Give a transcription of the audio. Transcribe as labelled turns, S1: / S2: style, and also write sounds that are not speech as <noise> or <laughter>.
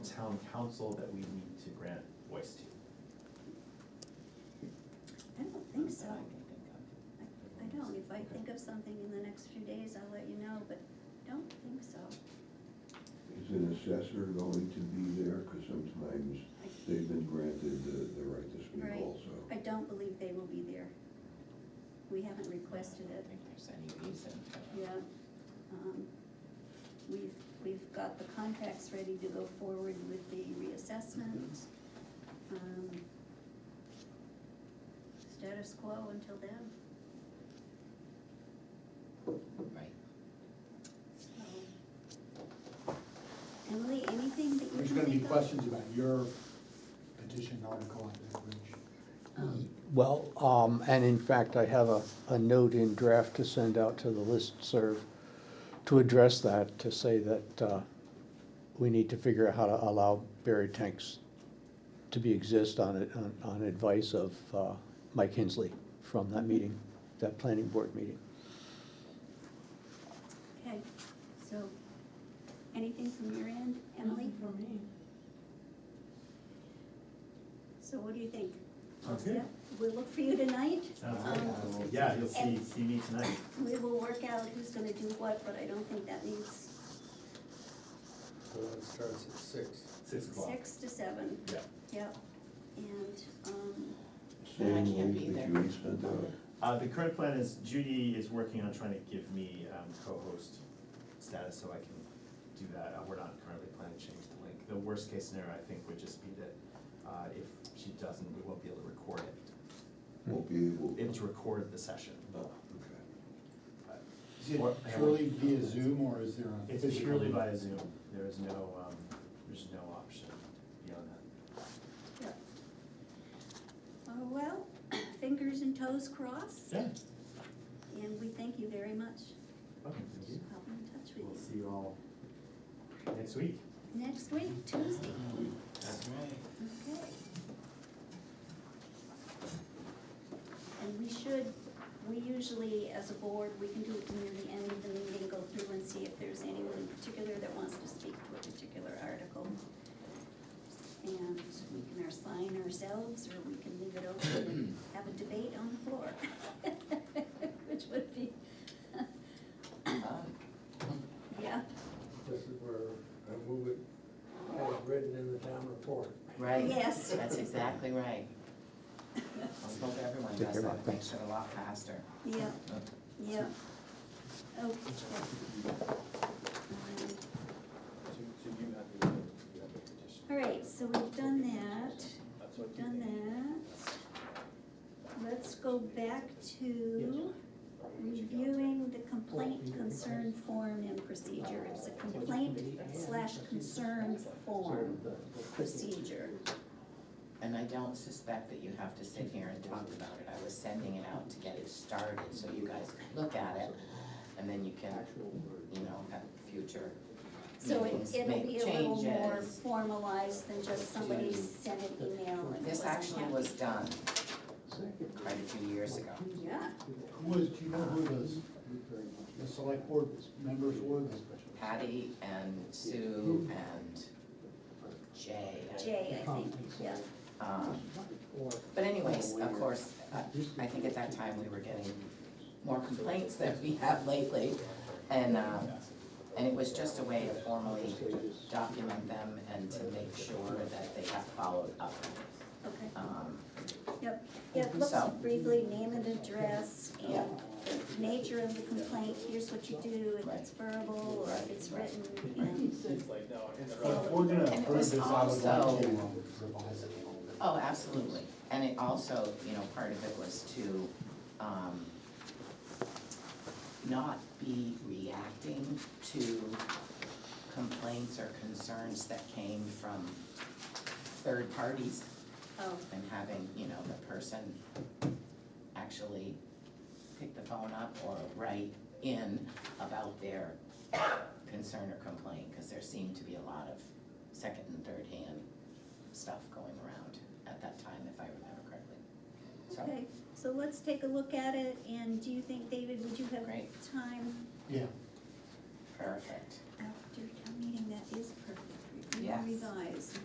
S1: town council that we need to grant voice to?
S2: I don't think so.
S1: I
S2: I don't, if I think of something in the next few days, I'll let you know, but I don't think so.
S3: Is an assessor going to be there? Because sometimes they've been granted the, the right to speak
S2: Right.
S3: also.
S2: I don't believe they will be there. We haven't requested
S4: I
S2: it,
S4: don't think there's any reason to.
S2: yeah. Um, We've, we've got the contracts ready to go forward with the reassessment. Um, Status quo until then,
S4: Right.
S2: so. Emily, anything that you can
S5: There's gonna be
S2: think of?
S5: questions about your petition article on that bridge.
S6: Well, um, and in fact, I have a, a note in draft to send out to the listserv to address that, to say that, uh, we need to figure out how to allow buried tanks to be exist on it, on, on advice of, uh, Mike Hensley from that meeting, that planning board meeting.
S2: Okay, so, anything from your end, Emily?
S7: for me.
S2: So what do you think?
S1: Sounds
S2: Joseph?
S1: good.
S2: We'll look for you tonight.
S1: Sounds
S2: Um,
S1: good. Uh, Yeah, you'll see,
S2: and-
S1: see me tonight.
S2: We will work out who's gonna do what, but I don't think that needs
S8: So it starts at six.
S1: Six o'clock.
S2: six to seven,
S1: Yeah.
S2: yep. And, um,
S4: And I
S3: Same
S4: can't
S3: link
S4: be
S3: that
S4: there.
S3: you had sent out.
S1: Uh, the current plan is Judy is working on trying to give me, um, co-host status so I can do that. Uh, We're not currently planning to change the link. The worst case scenario, I think, would just be that, uh, if she doesn't, we won't be able to record it.
S3: Won't be able.
S1: Able to record the session.
S3: Oh, okay.
S1: but-
S5: Is it
S1: Or-
S5: purely via Zoom or is there a?
S1: It's
S5: physical-
S1: purely via Zoom. There is no, um, there's no option beyond that.
S2: yep. Oh, well, <clears throat> fingers and toes crossed,
S1: Yeah.
S2: and we thank you very much
S1: Okay, thank you.
S2: for helping in touch
S1: We'll
S2: with
S1: see you all next week.
S2: you. Next week, Tuesday,
S1: That's right.
S2: okay. And we should, we usually, as a board, we can do it near the end of the meeting, go through and see if there's anyone in particular that wants to speak to a particular article. And we can assign ourselves, or we can leave it open and have a debate on the floor. <laughs> Which would be,
S4: Um,
S2: yeah,
S8: This is where I move it uh, as written in the town report.
S4: Right.
S2: Yes.
S4: That's exactly right. Let's hope everyone
S6: Take
S4: does
S6: care,
S4: that,
S6: Bob.
S4: it makes it a lot faster.
S2: yeah,
S4: Uh,
S2: yeah. Okay. Um,
S8: So you have the, you have the petition.
S2: All right, so we've done that, we've done that. Let's go back to reviewing the complaint concern form and procedure. It's a complaint slash concern form procedure.
S4: And I don't suspect that you have to sit here and talk about it, I was sending it out to get it started, so you guys can look at it, and then you can, you know, have future
S2: So it-
S4: meetings,
S2: it'll be
S4: make
S2: a little more
S4: changes.
S2: formalized than just somebody sent an email and
S4: This
S2: wasn't
S4: actually
S2: happy.
S4: was done quite a few years ago.
S2: Yeah,
S5: Who was, do you know who those, the select board members were?
S4: Patty and Sue and Jay.
S2: Jay, I think, yeah.
S4: Um, But anyways, of course, uh, I- I think at that time we were getting more complaints than we have lately. And, um, and it was just a way to formally document them and to make sure that they have followed up.
S2: Okay.
S4: Um,
S2: Yep, yeah, let's
S4: So-
S2: briefly name and address and the nature of the complaint, here's what you do, if it's verbal or if it's written, and
S5: But We're gonna
S4: And it
S5: approve
S4: was
S5: this out of line,
S4: also-
S5: we'll revise it a little bit.
S4: Oh, absolutely. And it also, you know, part of it was to, um, not be reacting to complaints or concerns that came from third parties
S2: oh,
S4: and having, you know, the person actually pick the phone up or write in about their concern or complaint, because there seemed to be a lot of second and third hand stuff going around at that time, if I remember correctly. So,
S2: okay. So let's take a look at it, and do you think, David, would you have
S4: Great.
S2: time
S5: Yeah.
S4: perfect.
S2: after town meeting, that is perfect, review,
S4: Yes.
S2: revised.